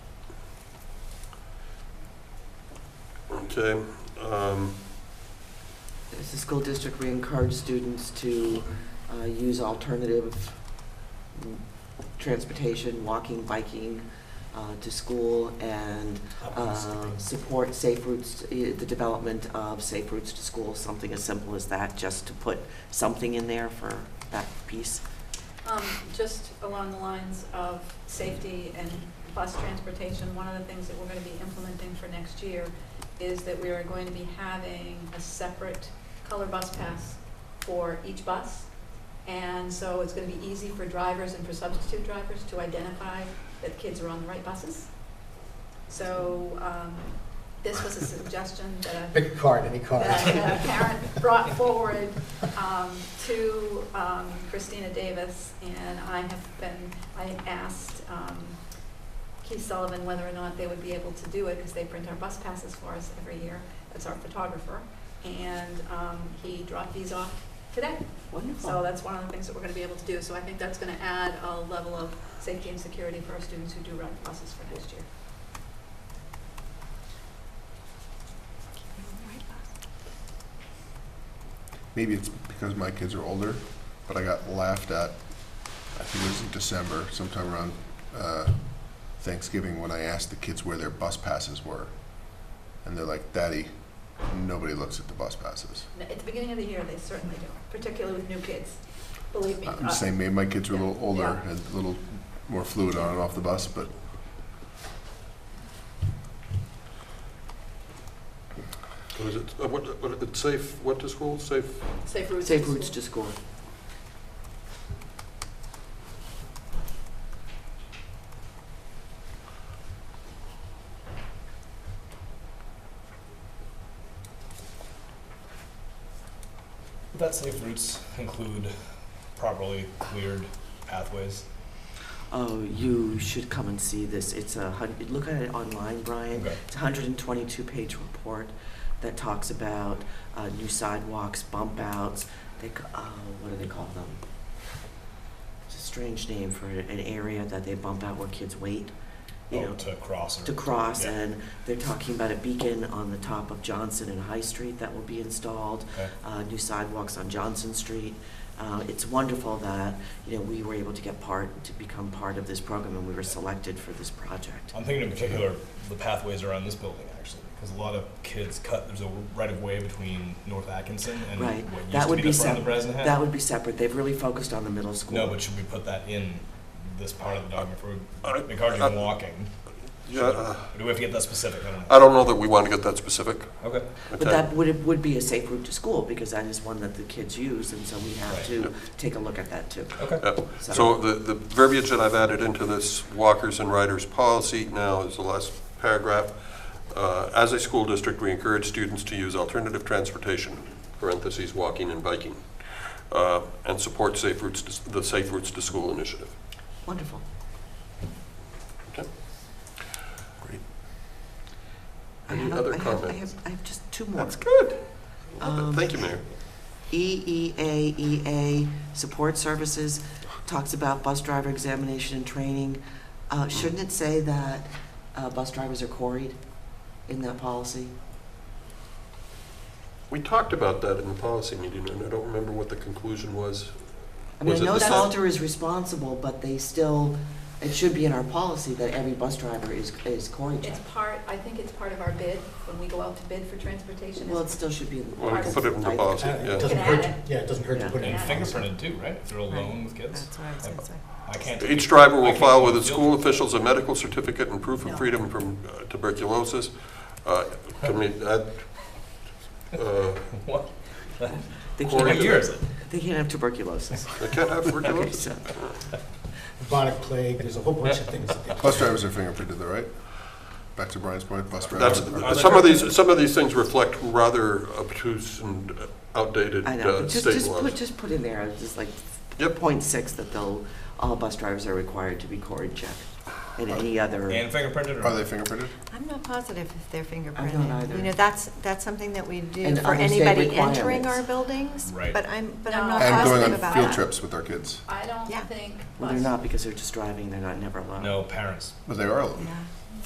Okay, um, As a school district, we encourage students to uh, use alternative mm, transportation, walking, biking uh, to school, and uh, support safe routes, eh, the development of safe routes to school, something as simple as that, just to put something in there for that piece. Um, Just along the lines of safety and bus transportation, one of the things that we're going to be implementing for next year is that we are going to be having a separate color bus pass for each bus. And so it's going to be easy for drivers and for substitute drivers to identify that kids are on the right buses. So um, this was a suggestion that a Pick a card, any card. that a parent brought forward um, to um, Christina Davis, and I have been, I asked um, Keith Sullivan whether or not they would be able to do it, because they print our bus passes for us every year, that's our photographer, and um, he dropped these off today. So Wonderful. that's one of the things that we're going to be able to do, so I think that's going to add a level of safety and security for our students who do ride buses for next year. maybe it's because my kids are older, but I got laughed at. I think it was in December, sometime around uh, Thanksgiving, when I asked the kids where their bus passes were, and they're like, "Daddy, nobody looks at the bus passes." At the beginning of the year, they certainly do, particularly with new kids, believe me. I'm uh, just saying, maybe my kids were a little older Yeah. and a little more fluid on and off the bus, but what is it, uh, what, what, it's safe, what to school, safe? Safe routes. Safe routes to school. That safe routes include properly cleared pathways. Oh, you should come and see this. It's a, hun- look at it online, Brian. Okay. It's a hundred and twenty-two page report that talks about uh, new sidewalks, bump outs, they, ca- uh, what do they call them? It's a strange name for an area that they bump out where kids wait, you Oh, know, to cross or to cross. Yeah. And they're talking about a beacon on the top of Johnson and High Street that will be installed Okay. uh, new sidewalks on Johnson Street. Uh, It's wonderful that, you know, we were able to get part, to become part of this program, and we were selected for this project. I'm thinking in particular the pathways around this building actually, because a lot of kids cut. There's a right of way between North Atkinson and Right. what used That to would be the be front sep, of the Bresnahan. that would be separate. They've really focused on the middle school. no, but should we put that in this part of the document for I- encouraging I- walking? Uh, Yeah, uh, Or do we have to get that specific? I don't know. I don't know that we want to get that specific, okay. But okay? that would, it would be a safe route to school, because that is one that the kids use, and so we have Right. to take a look at that too. Okay. Yeah. So the, the verbiage that I've added into this walkers and riders policy now is the last paragraph. Uh, As a school district, we encourage students to use alternative transportation, parentheses, walking and biking, uh, and support safe routes, to- the Safe Routes to School initiative. Wonderful. great. I Any have- other I have- I comments? have, I have just two more. That's good. Um, E Thank you, Mayor. EEAEA, support services, talks about bus driver examination and training. Uh, Shouldn't it say that uh, bus drivers are quarried in that policy? We talked about that in the policy meeting, and I don't remember what the conclusion was. I mean, I Was it know the same? Salter is responsible, but they still, it should be in our policy that every bus driver is, is quarried. It's part, I think it's part of our bid, when we go out to bid for transportation. Well, it still should be in the Well, we can policy. put it in the I- policy, Uh, yeah. It doesn't hurt, to- yeah, it doesn't hurt to put it in. And Yeah. fingerprinted too, right? If they're alone with kids, That's what I was gonna say. I can't. Each driver I will can't file go with on its field school trips. officials a medical certificate and proof of freedom from uh, tuberculosis. Uh, Can we add, uh, What? They Quarried. can't, What year is it? they can't have tuberculosis. they can't have Okay, tuberculosis? so, Bubonic plague, there's a whole bunch of things that they. Bus drivers are fingerprinted, though, right? Back to Brian's point, bus drivers. That's, are- some of these, some of these things reflect rather obtuse and outdated I know, uh, but just, state just put, laws. just put in there, uh, just like Yep. point six, that they'll, all bus drivers are required to be quarried checked. And any other. And fingerprinted or? Are they fingerprinted? I'm not positive if they're fingerprinted. either. You know, that's, that's something that we do And for other state anybody entering our requirements. buildings. Right. But I'm, but I'm No. not And positive going Uh, about on field that. trips with our kids, I don't Yeah. think. Well, they're bus- not because they're just driving, they're not never allowed. No, parents. but they are. allowed. Yeah.